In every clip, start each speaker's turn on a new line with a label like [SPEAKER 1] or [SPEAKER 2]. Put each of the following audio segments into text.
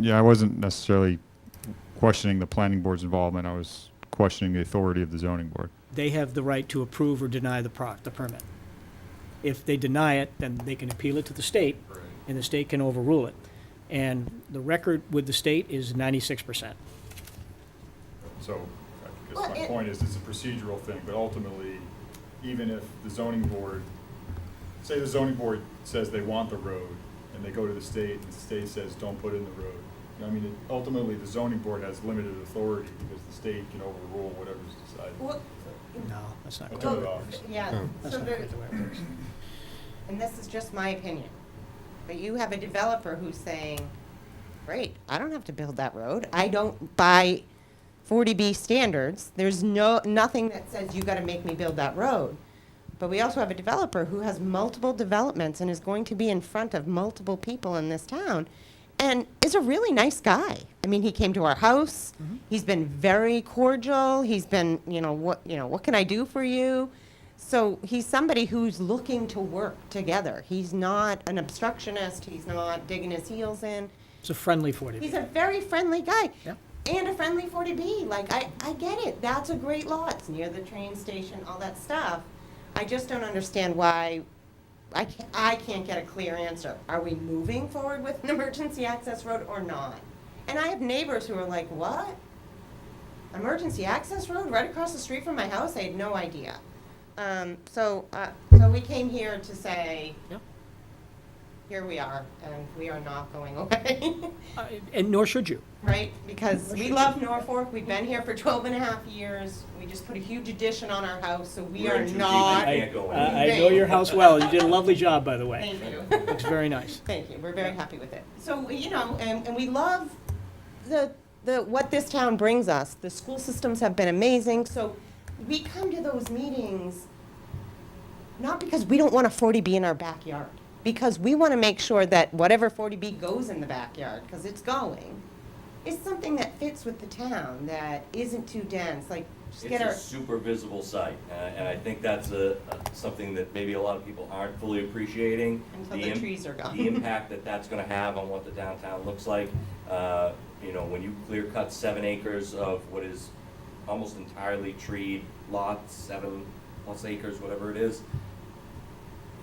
[SPEAKER 1] Yeah, I wasn't necessarily questioning the planning board's involvement. I was questioning the authority of the zoning board.
[SPEAKER 2] They have the right to approve or deny the pro, the permit. If they deny it, then they can appeal it to the state, and the state can overrule it. And the record with the state is ninety-six percent.
[SPEAKER 1] So I
[SPEAKER 3] Well,
[SPEAKER 1] guess my
[SPEAKER 3] it-
[SPEAKER 1] point is, it's a procedural thing, but ultimately, even if the zoning board, say the zoning board says they want the road, and they go to the state, and the state says, don't put in the road. I mean, it- ultimately, the zoning board has limited authority because the state can overrule whatever's decided.
[SPEAKER 3] Well,
[SPEAKER 2] No, that's not
[SPEAKER 1] Well,
[SPEAKER 2] correct.
[SPEAKER 1] Turn it off.
[SPEAKER 3] yeah,
[SPEAKER 2] Oh, That's
[SPEAKER 3] so
[SPEAKER 2] not
[SPEAKER 3] there,
[SPEAKER 2] quite the way it works.
[SPEAKER 3] and this is just my opinion. But you have a developer who's saying, great, I don't have to build that road. I don't, by 40B standards, there's no, nothing that says you gotta make me build that road. But we also have a developer who has multiple developments and is going to be in front of multiple people in this town and is a really nice guy. I mean, he came to our house. He's been very cordial. He's been, you know, what, you know, what can I do for you? So he's somebody who's looking to work together. He's not an obstructionist. He's not digging his heels in.
[SPEAKER 2] It's a friendly forty
[SPEAKER 3] He's a very friendly guy.
[SPEAKER 2] Yeah.
[SPEAKER 3] And a friendly 40B. Like, I, I get it. That's a great lot. It's near the train station, all that stuff. I just don't understand why I can't, I can't get a clear answer. Are we moving forward with an emergency access road or not? And I have neighbors who are like, what? Emergency access road right across the street from my house? I had no idea. Um, so, uh, so we came here to say,
[SPEAKER 2] Yep.
[SPEAKER 3] here we are, and we are not going away.
[SPEAKER 2] Uh, And nor should you.
[SPEAKER 3] right? Because we love Norfolk, we've been here for 12 and a half years, we just put a huge addition on our house, so we
[SPEAKER 4] We're
[SPEAKER 3] are
[SPEAKER 4] in too deep.
[SPEAKER 3] not,
[SPEAKER 4] I can't go
[SPEAKER 2] I I
[SPEAKER 3] anywhere.
[SPEAKER 2] know your house well. You did a lovely job, by the way.
[SPEAKER 3] thank you,
[SPEAKER 2] Looks very nice.
[SPEAKER 3] thank you, we're very happy with it. So, you know, and, and we love the, the, what this town brings us, the school systems have been amazing, so we come to those meetings not because we don't want a 40B in our backyard, because we want to make sure that whatever 40B goes in the backyard, because it's going, is something that fits with the town, that isn't too dense, like, just get
[SPEAKER 4] It's
[SPEAKER 3] our,
[SPEAKER 4] a super visible site, and I- and I think that's a, a- something that maybe a lot of people aren't fully appreciating.
[SPEAKER 3] Until the
[SPEAKER 4] im-
[SPEAKER 3] trees are gone.
[SPEAKER 4] The impact that that's gonna have on what the downtown looks like. Uh, You know, when you clear cut seven acres of what is almost entirely treed lots, seven plus acres, whatever it is,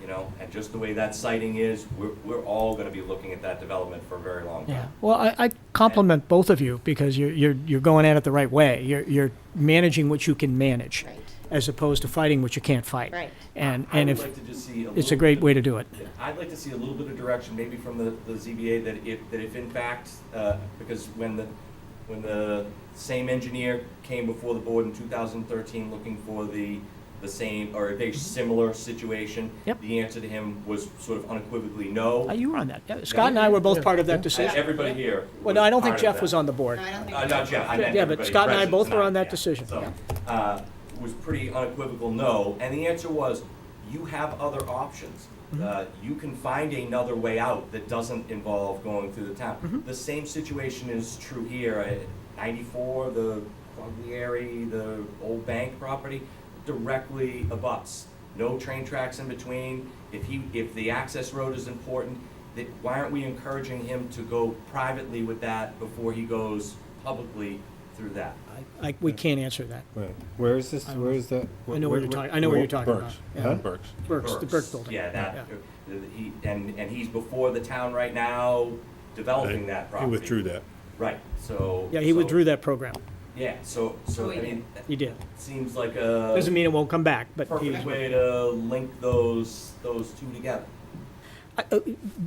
[SPEAKER 4] you know, and just the way that siting is, we're, we're all gonna be looking at that development for a very long
[SPEAKER 2] Yeah.
[SPEAKER 4] time.
[SPEAKER 2] Well, I, I compliment both of you because you're, you're, you're going at it the right way. You're, you're managing what you can manage
[SPEAKER 3] Right.
[SPEAKER 2] as opposed to fighting what you can't fight.
[SPEAKER 3] Right.
[SPEAKER 2] And,
[SPEAKER 4] I
[SPEAKER 2] and
[SPEAKER 4] would
[SPEAKER 2] if,
[SPEAKER 4] like to just see a
[SPEAKER 2] it's a
[SPEAKER 4] little
[SPEAKER 2] great
[SPEAKER 4] bit-
[SPEAKER 2] way to do it.
[SPEAKER 4] Yeah, I'd like to see a little bit of direction, maybe from the, the ZBA, that if, that if in fact, uh, because when the, when the same engineer came before the board in two thousand thirteen looking for the, the same, or a very similar situation.
[SPEAKER 2] Yep.
[SPEAKER 4] The answer to him was sort of unequivocally no.
[SPEAKER 2] Uh, You were on that. Yeah, Scott and I were both part of that
[SPEAKER 4] And
[SPEAKER 2] decision.
[SPEAKER 4] everybody here.
[SPEAKER 2] Well, no, I don't think
[SPEAKER 4] part of
[SPEAKER 2] Jeff
[SPEAKER 4] that.
[SPEAKER 2] was on the board.
[SPEAKER 3] No, I don't think
[SPEAKER 4] Uh, not Jeff, I meant
[SPEAKER 2] Yeah, but
[SPEAKER 4] everybody
[SPEAKER 2] Scott and I
[SPEAKER 4] present
[SPEAKER 2] both were on
[SPEAKER 4] tonight,
[SPEAKER 2] that
[SPEAKER 4] yeah.
[SPEAKER 2] decision.
[SPEAKER 4] So, uh, was pretty unequivocal no, and the answer was, you have other options. Uh, you can find another way out that doesn't involve going through the town. The same situation is true here at ninety-four, the Quaglieri, the old bank property, directly abuts. No train tracks in between. If he, if the access road is important, that, why aren't we encouraging him to go privately with that before he goes publicly through that?
[SPEAKER 2] Like, we can't answer that.
[SPEAKER 5] Right. Where is this, where is that?
[SPEAKER 2] I know what you're talking, I know what you're talking about. Yeah.
[SPEAKER 5] Burks.
[SPEAKER 2] Burke's, the Burke building.
[SPEAKER 4] Yeah, that, uh, he, and, and he's before the town right now developing that
[SPEAKER 5] He
[SPEAKER 4] property.
[SPEAKER 5] withdrew that.
[SPEAKER 4] Right, so.
[SPEAKER 2] Yeah, he
[SPEAKER 4] so-
[SPEAKER 2] withdrew that program.
[SPEAKER 4] Yeah, so, so, I mean,
[SPEAKER 2] He did.
[SPEAKER 4] that seems like a
[SPEAKER 2] Doesn't mean it won't come back, but he,
[SPEAKER 4] perfect way to link those, those two together.
[SPEAKER 2] I- uh,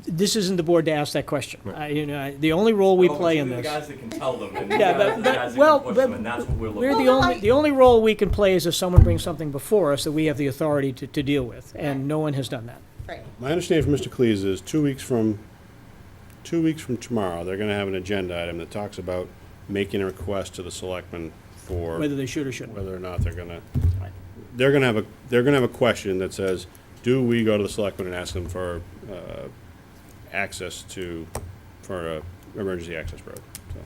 [SPEAKER 2] this isn't the board to ask that question. I, you know, I- the only role we
[SPEAKER 4] Oh, but
[SPEAKER 2] play
[SPEAKER 4] you
[SPEAKER 2] in
[SPEAKER 4] the
[SPEAKER 2] this.
[SPEAKER 4] Guys that can tell them, and the
[SPEAKER 2] Yeah,
[SPEAKER 4] guys
[SPEAKER 2] but-
[SPEAKER 4] are the
[SPEAKER 2] but-
[SPEAKER 4] guys that
[SPEAKER 2] well,
[SPEAKER 4] can push
[SPEAKER 2] but
[SPEAKER 4] them, and that's what we're
[SPEAKER 2] We're
[SPEAKER 4] looking
[SPEAKER 2] the
[SPEAKER 4] for.
[SPEAKER 3] Well,
[SPEAKER 2] only,
[SPEAKER 3] I-
[SPEAKER 2] the only role we can play is if someone brings something before us that we have the authority to, to deal with, and no one has done that.
[SPEAKER 3] right,
[SPEAKER 6] My understanding from Mr. Cleese is two weeks from, two weeks from tomorrow, they're gonna have an agenda item that talks about making a request to the selectmen for
[SPEAKER 2] Whether they should or shouldn't.
[SPEAKER 6] whether or not they're gonna, they're gonna have a, they're gonna have a question that says, do we go to the selectmen and ask them for, uh, access to, for a emergency access road? So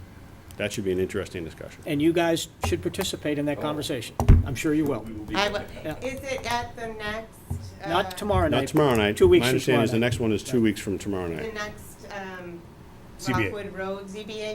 [SPEAKER 6] That should be an interesting discussion.
[SPEAKER 2] And you guys should participate in that
[SPEAKER 4] Oh.
[SPEAKER 2] conversation. I'm sure you will.
[SPEAKER 4] We will be
[SPEAKER 3] I,
[SPEAKER 4] looking.
[SPEAKER 2] Yeah.
[SPEAKER 3] w- is it at the next, uh?
[SPEAKER 2] Not tomorrow night.
[SPEAKER 6] Not tomorrow night.
[SPEAKER 2] Two weeks
[SPEAKER 6] My
[SPEAKER 2] from
[SPEAKER 6] understanding
[SPEAKER 2] tomorrow
[SPEAKER 6] is the
[SPEAKER 2] night.
[SPEAKER 6] next one is two weeks from tomorrow
[SPEAKER 3] The
[SPEAKER 6] night.
[SPEAKER 3] next, um,
[SPEAKER 7] ZBA.
[SPEAKER 3] Rockwood Road, ZBA